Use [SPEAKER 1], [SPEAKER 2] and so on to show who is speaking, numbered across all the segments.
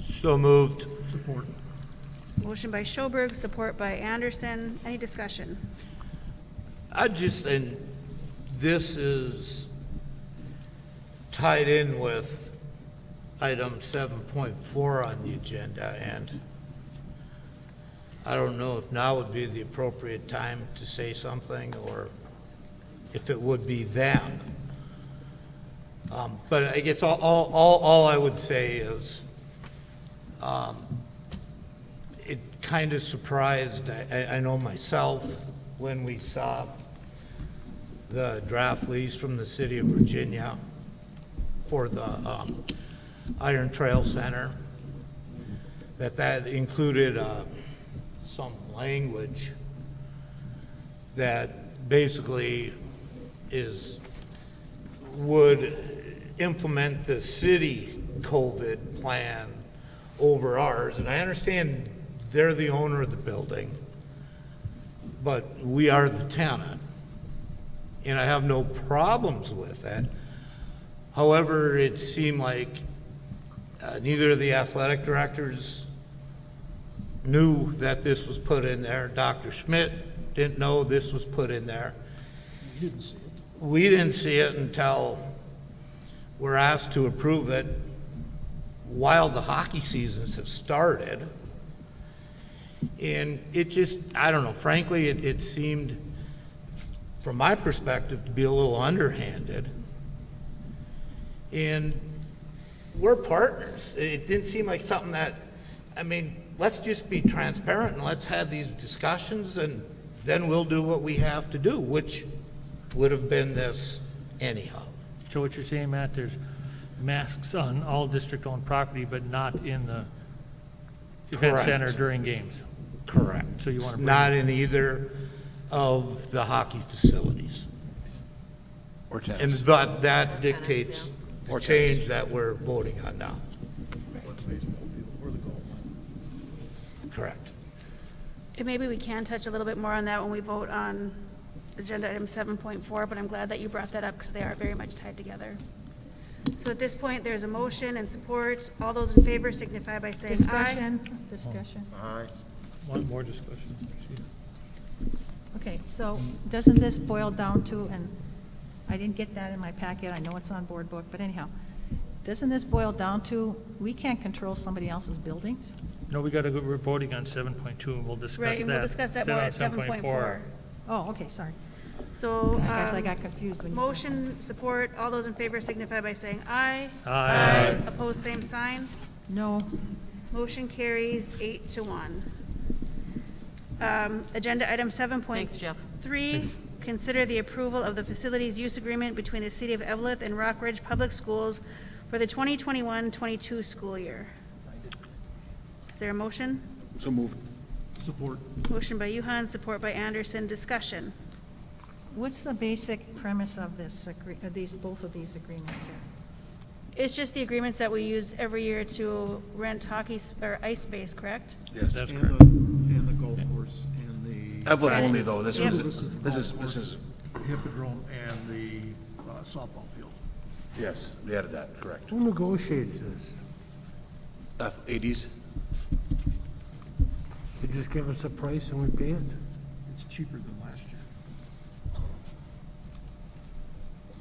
[SPEAKER 1] So moved.
[SPEAKER 2] Support.
[SPEAKER 3] Motion by Schoberg, support by Anderson. Any discussion?
[SPEAKER 1] I just, and this is tied in with item seven point four on the agenda, and I don't know if now would be the appropriate time to say something, or if it would be then. Um, but I guess all, all, all, all I would say is, um, it kind of surprised, I- I, I know myself, when we saw the draft lease from the city of Virginia for the um, Iron Trail Center, that that included uh, some language that basically is, would implement the city COVID plan over ours, and I understand they're the owner of the building, but we are the tenant, and I have no problems with that. However, it seemed like uh, neither of the athletic directors knew that this was put in there. Dr. Schmidt didn't know this was put in there. We didn't see it until we're asked to approve it while the hockey seasons have started. And it just, I don't know, frankly, it, it seemed, from my perspective, to be a little underhanded. And we're partners. It didn't seem like something that, I mean, let's just be transparent and let's have these discussions and then we'll do what we have to do, which would have been this anyhow.
[SPEAKER 4] So what you're saying, Matt, there's masks on all district-owned property, but not in the event
[SPEAKER 1] Correct.
[SPEAKER 4] center during games?
[SPEAKER 1] Correct.
[SPEAKER 4] So you wanna bring-
[SPEAKER 1] Not in either of the hockey facilities.
[SPEAKER 5] Or
[SPEAKER 1] And
[SPEAKER 5] tennis.
[SPEAKER 1] that, that dictates the change that we're voting on now. Correct.
[SPEAKER 3] And maybe we can touch a little bit more on that when we vote on agenda item 7.4, but I'm glad that you brought that up because they are very much tied together. So at this point, there's a motion and support. All those in favor signify by saying aye.
[SPEAKER 6] Discussion, discussion.
[SPEAKER 4] One more discussion.
[SPEAKER 6] Okay, so doesn't this boil down to, and I didn't get that in my packet, I know it's on board book, but anyhow, doesn't this boil down to, we can't control somebody else's buildings?
[SPEAKER 4] No, we got to, we're voting on 7.2, and we'll discuss that.
[SPEAKER 3] Right, and we'll discuss that
[SPEAKER 4] then
[SPEAKER 3] more
[SPEAKER 4] on
[SPEAKER 3] at 7.4.
[SPEAKER 6] Oh, okay, sorry.
[SPEAKER 3] So.
[SPEAKER 6] I guess I
[SPEAKER 3] um,
[SPEAKER 6] got confused when you.
[SPEAKER 3] Motion, support. All those in favor signify by saying aye.
[SPEAKER 4] Aye.
[SPEAKER 3] Opposed, same sign.
[SPEAKER 6] No,
[SPEAKER 3] Motion carries eight to one. Um, Agenda item seven point three: consider the approval of the facilities use agreement between the City of Evelyn and Rock Ridge Public Schools for the 2021-22 school year. Is there a motion?
[SPEAKER 5] So moved.
[SPEAKER 2] Support.
[SPEAKER 3] Motion by Yuhon, support by Anderson. Discussion.
[SPEAKER 6] what's the basic premise of this, agree- of these, both of these agreements here?
[SPEAKER 3] It's just the agreements that we use every year to rent hockey, s- or ice space, correct?
[SPEAKER 5] Yes.
[SPEAKER 4] That's
[SPEAKER 2] And
[SPEAKER 4] correct.
[SPEAKER 2] the, and the golf course and the.
[SPEAKER 5] Evelyn only, though. This
[SPEAKER 3] Yep.
[SPEAKER 5] was,
[SPEAKER 2] This is the
[SPEAKER 5] this is,
[SPEAKER 2] golf
[SPEAKER 5] this
[SPEAKER 2] course,
[SPEAKER 5] is,
[SPEAKER 2] Hippodrome and the uh, softball field.
[SPEAKER 5] yes, they added that, correct.
[SPEAKER 7] Who negotiates this?
[SPEAKER 5] F- 80s?
[SPEAKER 7] They just give us a price and we pay it?
[SPEAKER 2] It's cheaper than last year.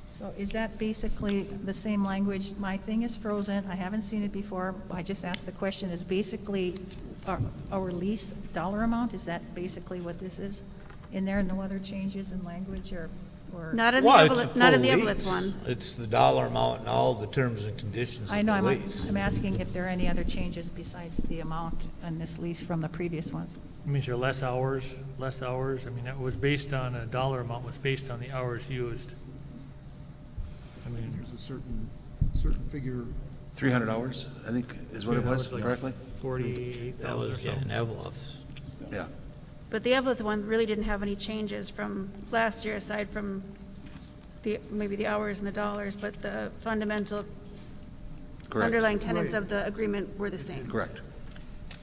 [SPEAKER 6] So is that basically the same language? My thing is frozen, I haven't seen it before, I just asked the question, is basically our, our lease dollar amount, is that basically what this is? In there, no other changes in language or, or?
[SPEAKER 3] Not in the
[SPEAKER 1] Well, it's a
[SPEAKER 3] Evelyn, not in the
[SPEAKER 1] full
[SPEAKER 3] Evelyn
[SPEAKER 1] lease.
[SPEAKER 3] one.
[SPEAKER 1] It's the dollar amount and all the terms and conditions
[SPEAKER 6] I
[SPEAKER 1] of
[SPEAKER 6] know,
[SPEAKER 1] the
[SPEAKER 6] I'm,
[SPEAKER 1] lease.
[SPEAKER 6] I'm asking if there are any other changes besides the amount on this lease from the previous ones?
[SPEAKER 4] It means you're less hours, less hours. I mean, that was based on, a dollar amount was based on the hours used. I mean,
[SPEAKER 2] There's a certain, certain figure.
[SPEAKER 5] 300 hours, I think, is what it was,
[SPEAKER 4] It's like
[SPEAKER 5] correctly?
[SPEAKER 4] 48,000 or
[SPEAKER 1] yeah,
[SPEAKER 4] so.
[SPEAKER 1] in Evelyn's.
[SPEAKER 5] Yeah.
[SPEAKER 3] But the Evelyn one really didn't have any changes from last year, aside from the, maybe the hours and the dollars, but the fundamental
[SPEAKER 5] Correct.
[SPEAKER 3] underlying tenets of the agreement were the same.
[SPEAKER 5] Correct.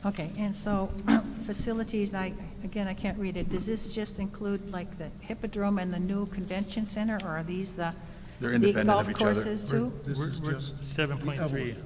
[SPEAKER 6] Okay, and so facilities, I, again, I can't read it, does this just include like the Hippodrome and the new convention center, or are these the?
[SPEAKER 5] They're
[SPEAKER 6] the
[SPEAKER 5] independent of
[SPEAKER 6] golf
[SPEAKER 5] each other.
[SPEAKER 6] courses too?
[SPEAKER 2] This is just.
[SPEAKER 4] Seven point three,
[SPEAKER 2] Evelyn.